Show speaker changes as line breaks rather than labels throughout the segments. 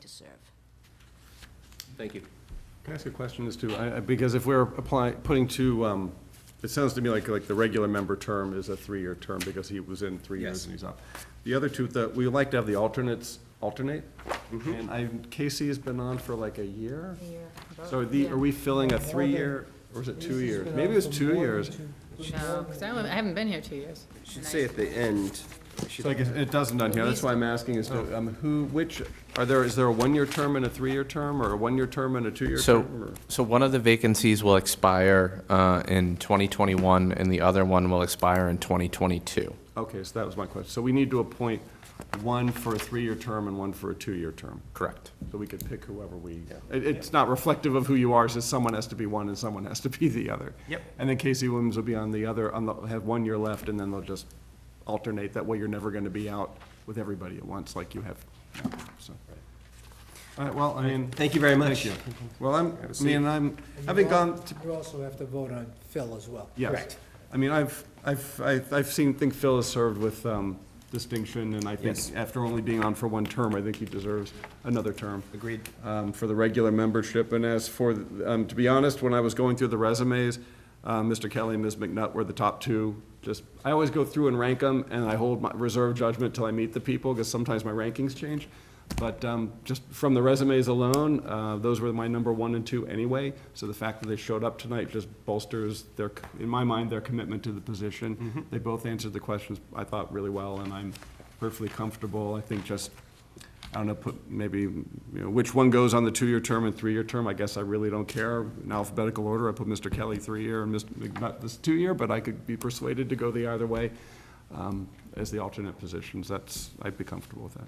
to serve.
Thank you.
Can I ask a question as to, I- I- because if we're applying, putting two, um, it sounds to me like, like the regular member term is a three-year term because he was in three
Yes.
years and he's up. The other two, that, we would like to have the alternates alternate.
Mm-hmm.
And I, Casey's been on for like a year. So are the, are we filling a three-year, or is it two years? Maybe it was two years.
No, because I haven't- I haven't been here two years.
Should say at the end, should-
So I guess it doesn't on here, that's why I'm asking is, to, um, who, which, are there, is there a one-year term and a three-year term, or a one-year term and a two-year
So,
term? or-
so one of the vacancies will expire uh, in 2021, and the other one will expire in 2022.
Okay, so that was my question. So we need to appoint one for a three-year term and one for a two-year term,
Correct.
so we could pick whoever we, it, it's not reflective of who you are, it's just someone has to be one and someone has to be the other.
Yep.
And then Casey Williams will be on the other, on the, have one year left, and then they'll just alternate. That way you're never gonna be out with everybody at once like you have now, so. All right, well, I mean,
Thank you very much.
you. well, I'm,
Have a
I
seat.
mean, I'm,
And
having
you
gone
al-
to
You also have to vote on Phil as well.
Yes.
Correct.
I mean, I've, I've, I've I've seen, think Phil has served with um, distinction, and I think
Yes.
after only being on for one term, I think he deserves another term
Agreed.
um, for the regular membership. And as for, um, to be honest, when I was going through the resumes, uh, Mr. Kelly and Ms. McNutt were the top two. Just, I always go through and rank them, and I hold my reserve judgment till I meet the people, because sometimes my rankings change. But um, just from the resumes alone, uh, those were my number one and two anyway. So the fact that they showed up tonight just bolsters their, in my mind, their commitment to the position. They both answered the questions, I thought, really well, and I'm perfectly comfortable. I think just I don't know, put maybe, you know, which one goes on the two-year term and three-year term, I guess I really don't care. In alphabetical order, I put Mr. Kelly three-year and Mr. McNutt this two-year, but I could be persuaded to go the either way um, as the alternate positions. That's, I'd be comfortable with that.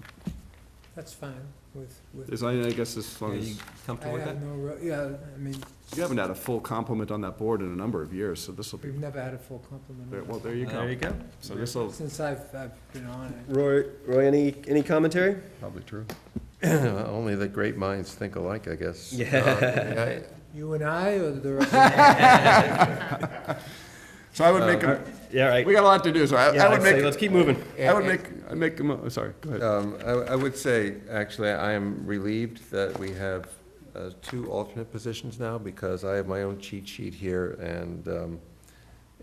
That's fine with, with.
As I, I guess as
Are
long as,
you
you
I
comfortable with that?
have no, re- yeah, I mean,
haven't had a full complement on that board in a number of years, so this will be,
we've never had a full complement. of
well, there you
There you
go.
go.
So this will,
Since I've, I've been on it.
Roy, Roy, any, any commentary?
probably true.
Only the great minds think alike, I guess. Uh,
Yeah.
You and I or the rest? of
So Uh, I would make, a-
Yeah, right.
we got a lot to do, so I
Yeah,
I would
let's say-
make,
Let's keep moving.
I would make, I make, a mo- sorry, go ahead.
Um, I, I would say, actually, I am relieved that we have uh, two alternate positions now, because I have my own cheat sheet here, and um,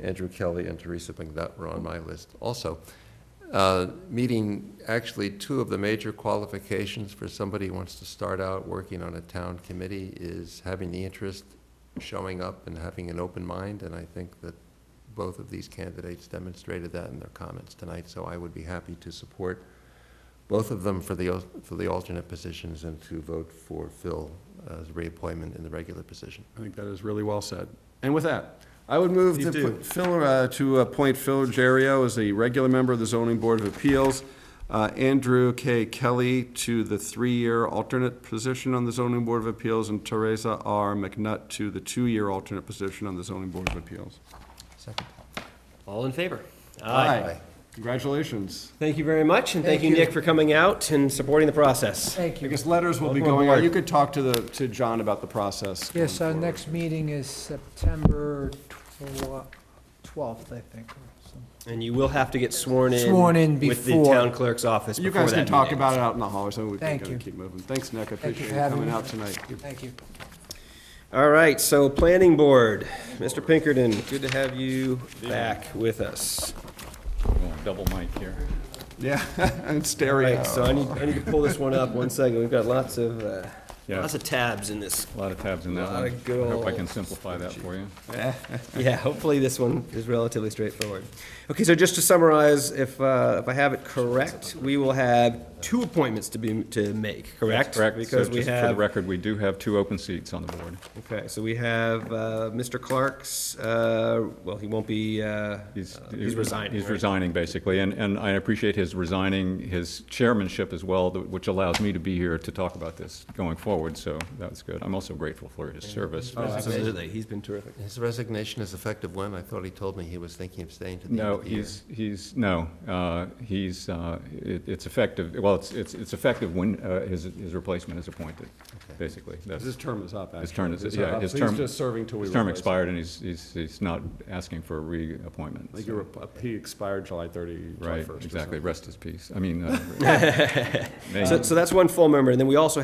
Andrew Kelly and Teresa McNutt were on my list also. Uh, Meeting, actually, two of the major qualifications for somebody who wants to start out working on a town committee is having the interest, showing up, and having an open mind, and I think that both of these candidates demonstrated that in their comments tonight, so I would be happy to support both of them for the, al- for the alternate positions and to vote for Phil as reappointment in the regular position.
I think that is really well said. And with that, I would move
Please
to
do.
put Phil, uh, to appoint Phil Gerio as a regular member of the zoning board of appeals, uh, Andrew K. Kelly to the three-year alternate position on the zoning board of appeals, and Teresa R. McNutt to the two-year alternate position on the zoning board of appeals.
Second.
All in favor?
Congratulations.
Thank you very much, and thank
Thank
you,
you.
Nick, for coming out and supporting the process.
Thank
I
you.
guess letters will be
Welcome
going out.
aboard.
You could talk to the, to John about the process. going
Yes, our
forward.
next meeting is September tw- twelfth, I think. or something.
And you will have to get sworn in.
Sworn in
With the
before.
town clerk's office
You
before that
guys can talk
meeting.
about it out in the hall or something. We can
Thank
kinda
you.
keep moving. Thanks, Nick. I
Thank you
appreciate
for
you
having
coming
me.
out tonight.
Thank you.
All right, so planning board, Mr. Pinkerton, good to have you back with us.
Double mic here.
Yeah, and
All
stereo.
Oh.
right, so I need, I need to pull this one up, one second, we've got lots of, uh,
Yeah.
lots of tabs in this.
A lot of tabs in that
Lot
one.
of good
I hope I
ol'
can simplify that for you.
Yeah, hopefully this one is relatively straightforward. Okay, so just to summarize, if, uh, if I have it correct, we will have two appointments to be, to make, correct?
Correct. So
Because we
just For the
have,
record, we do have two open seats on the board.
okay, so we have, uh, Mr. Clark's, uh, well, he won't be, uh,
He's
uh, he's resigning,
He's
right?
resigning, basically, and, and I appreciate his resigning, his chairmanship as well, th- which allows me to be here to talk about this going forward, so that's good. I'm also grateful for his service.
Oh.
Absolutely, Oh, he's been terrific.
His resignation is effective when? I thought he told me he was thinking of staying to the end
No,
of the year.
he's, he's, no, uh, he's, uh, it- it's effective, well, it's, it's it's effective when uh, his, his replacement is appointed, basically. That's-
His term is up, actually.
His term is,
It's
yeah,
up.
his
He's
term.
just serving till we
His term
replace him.
expired, and he's, he's, he's not asking for a reappointment.
Like
so-
you're, up- he expired July 30, July 1st.
Right,
or
exactly,
something.
rest his peace, I mean, uh, may-
So, so that's one full member, and then we also